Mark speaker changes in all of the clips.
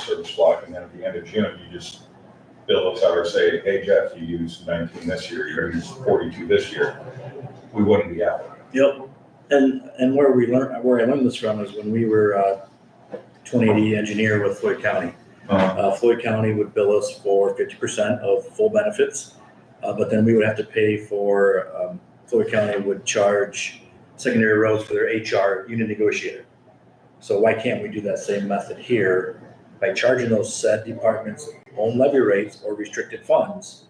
Speaker 1: service block, and then at the end of June, you just bill us out or say, hey Jeff, you used nineteen this year, you used forty-two this year, we wouldn't be out.
Speaker 2: Yep, and, and where we learned, where I learned this from is when we were, uh, twenty D engineer with Floyd County.
Speaker 1: Uh,
Speaker 2: Uh, Floyd County would bill us for fifty percent of full benefits, uh, but then we would have to pay for, um, Floyd County would charge secondary roads for their HR unit negotiator. So why can't we do that same method here by charging those said departments own levy rates or restricted funds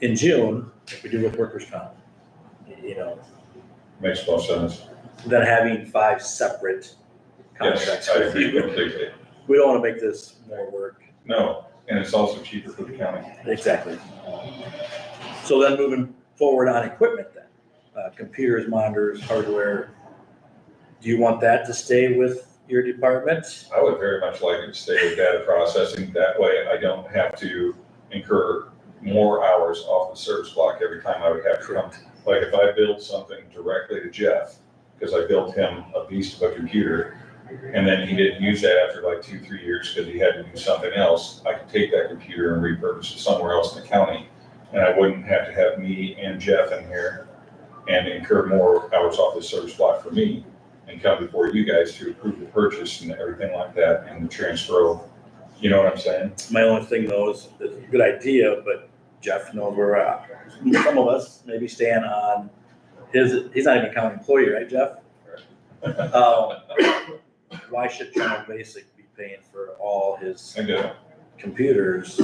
Speaker 2: in June, like we do with workers' comp? You know,
Speaker 1: Makes no sense.
Speaker 2: than having five separate
Speaker 1: Yes,
Speaker 2: contracts.
Speaker 1: I agree completely.
Speaker 2: We don't want to make this more work.
Speaker 1: No, and it's also cheaper for the county.
Speaker 2: Exactly. So then moving forward on equipment then, uh, computers, monitors, hardware. Do you want that to stay with your department?
Speaker 1: I would very much like it to stay with data processing. That way I don't have to incur more hours off the service block every time I would have to come. Like if I build something directly to Jeff, because I built him a beast of a computer, and then he didn't use that after like two, three years because he had to do something else, I could take that computer and repurpose it somewhere else in the county. And I wouldn't have to have me and Jeff in here and incur more hours off the service block for me and come before you guys to approve the purchase and everything like that and the transfer. of- You know what I'm saying?
Speaker 2: My only thing though is, it's a good idea, but Jeff knows where we're at. Some of us maybe stand on his, he's not even a county employee, right, Jeff? Um, Why should General Basic be paying for all his
Speaker 1: I do.
Speaker 2: computers.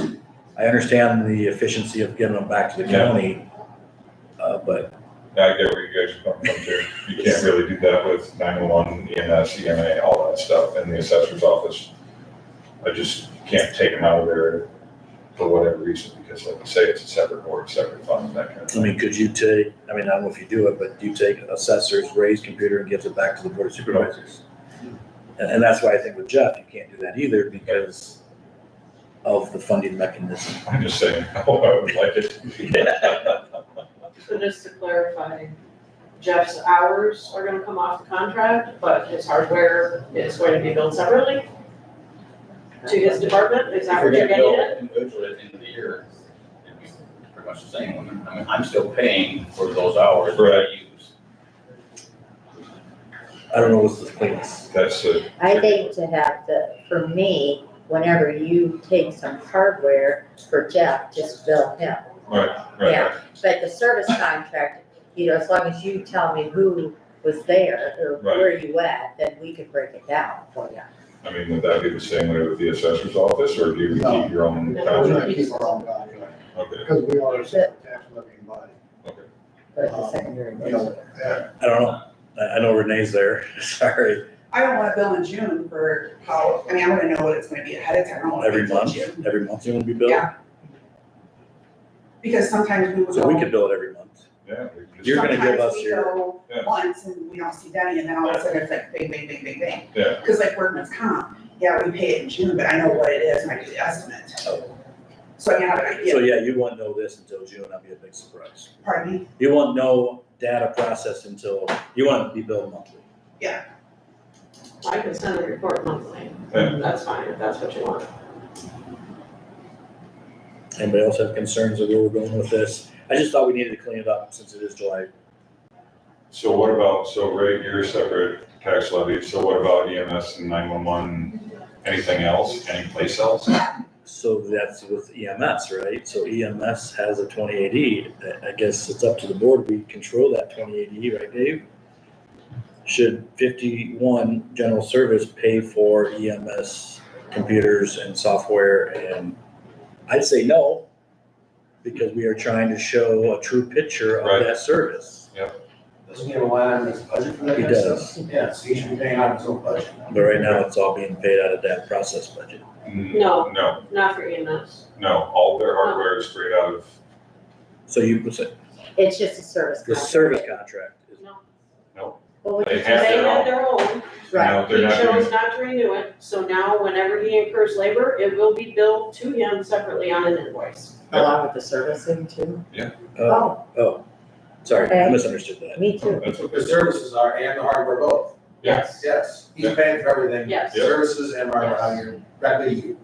Speaker 2: I understand the efficiency of giving them back to the
Speaker 1: Yeah.
Speaker 2: county. Uh, but
Speaker 1: I get where you guys are coming from too. You can't really do that with 911, EMS, EMA, E all that stuff and the assessor's office. I just can't take them out of there for whatever reason because like you say, it's a separate board, separate fund, that kind of
Speaker 2: I mean, could you take, I mean, I don't know if you do it, but do you take assessor's raised computer and gives it back to the board of supervisors? And, and that's why I think with Jeff, you can't do that either because of the funding mechanism.
Speaker 1: I'm just saying, oh, I would like it. to be.
Speaker 3: So just to clarify, Jeff's hours are gonna come off the contract, but his hardware is going to be billed separately to his department, is
Speaker 4: If
Speaker 3: that
Speaker 4: we're
Speaker 3: what you're
Speaker 4: gonna
Speaker 3: getting
Speaker 4: bill
Speaker 3: at?
Speaker 4: individually at the end of the year, it's pretty much the same. I mean, I'm still paying for those hours that
Speaker 1: Right.
Speaker 4: I use.
Speaker 2: I don't know what's the cleanest.
Speaker 1: That's a.
Speaker 5: I think to have the, for me, whenever you take some hardware for Jeff, just bill him.
Speaker 1: Right, right,
Speaker 5: Yeah. But the service contract, you know, as long as you tell me who was there or
Speaker 1: Right.
Speaker 5: where you at, then we can break it down for you.
Speaker 1: I mean, would that be the same way with the assessor's office or do you
Speaker 6: No.
Speaker 1: keep your own
Speaker 3: No.
Speaker 6: We're
Speaker 1: contract?
Speaker 6: gonna keep our own contract,
Speaker 1: Okay,
Speaker 6: because we are a separate tax levying body.
Speaker 1: okay.
Speaker 5: But the secondary.
Speaker 6: Uh, You know, that-
Speaker 2: I don't know. I, I know Renee's there. Sorry.
Speaker 7: I don't wanna bill in June for how, I mean, I wanna know what it's gonna be ahead of time. I don't wanna
Speaker 2: Every
Speaker 7: bill in
Speaker 2: month,
Speaker 7: June.
Speaker 2: every month you want to be billed?
Speaker 7: Yeah. Because sometimes we will
Speaker 2: So we
Speaker 7: go,
Speaker 2: could bill it every month.
Speaker 1: Yeah. we just-
Speaker 2: You're gonna give
Speaker 7: sometimes
Speaker 2: us
Speaker 7: we
Speaker 2: your-
Speaker 7: go
Speaker 1: Yeah.
Speaker 7: once and we don't see Denny and then all of a sudden it's like bang, bang, bang, bang, bang.
Speaker 1: Yeah.
Speaker 7: Cause like workman's comp, yeah, we pay it in June, but I know what it is and I do the estimate.
Speaker 2: Oh.
Speaker 7: So I have an
Speaker 2: So
Speaker 7: idea,
Speaker 2: yeah, you won't know this until June. That'd be a big surprise.
Speaker 7: pardon me,
Speaker 2: You want no data processed until, you want it to be billed monthly.
Speaker 3: I can send a report monthly,
Speaker 1: Yeah.
Speaker 3: that's fine, if that's what you want.
Speaker 2: Anybody else have concerns of where we're going with this? I just thought we needed to clean it up since it is July.
Speaker 1: So what about, so Ray, you're separate tax levy, so what about EMS and nine-one-one, anything else, anyplace else?
Speaker 2: So that's with EMS, right? So EMS has a twenty eighty. I guess it's up to the board. We control that twenty eighty, right, Dave? Should fifty-one general service pay for EMS computers and software and I'd say no. Because we are trying to show a true picture
Speaker 1: Right.
Speaker 2: of that service.
Speaker 8: Doesn't he have a line on his budget for that
Speaker 2: He
Speaker 8: kind of
Speaker 2: does.
Speaker 8: stuff? Yeah, so he should be paying out of his own budget.
Speaker 2: But right now, it's all being paid out of that process budget.
Speaker 1: Mm,
Speaker 3: No,
Speaker 1: No,
Speaker 3: not for EMS.
Speaker 1: no, all their hardware is straight out of,
Speaker 2: So you, the
Speaker 5: It's just a service contract.
Speaker 2: service contract is
Speaker 3: No.
Speaker 5: Well, we-
Speaker 1: they
Speaker 3: They
Speaker 1: have their
Speaker 3: had
Speaker 1: own.
Speaker 3: their own,
Speaker 5: Right,
Speaker 1: No,
Speaker 3: he
Speaker 1: they're not
Speaker 3: chose
Speaker 1: doing,
Speaker 3: not to renew it, so now whenever he incurs labor, it will be billed to him separately on an invoice.
Speaker 5: along with the servicing too.
Speaker 2: oh,
Speaker 6: uh,
Speaker 5: Oh,
Speaker 2: oh, sorry, I
Speaker 5: Okay.
Speaker 2: misunderstood that.
Speaker 5: me too.
Speaker 1: that's what
Speaker 8: The
Speaker 1: they're
Speaker 8: services are, and the hardware both,
Speaker 1: Yeah.
Speaker 3: Yes.
Speaker 8: yes, he's
Speaker 1: Yeah.
Speaker 8: paying for everything.
Speaker 3: Yes.
Speaker 8: Services and hardware, how you're, that you.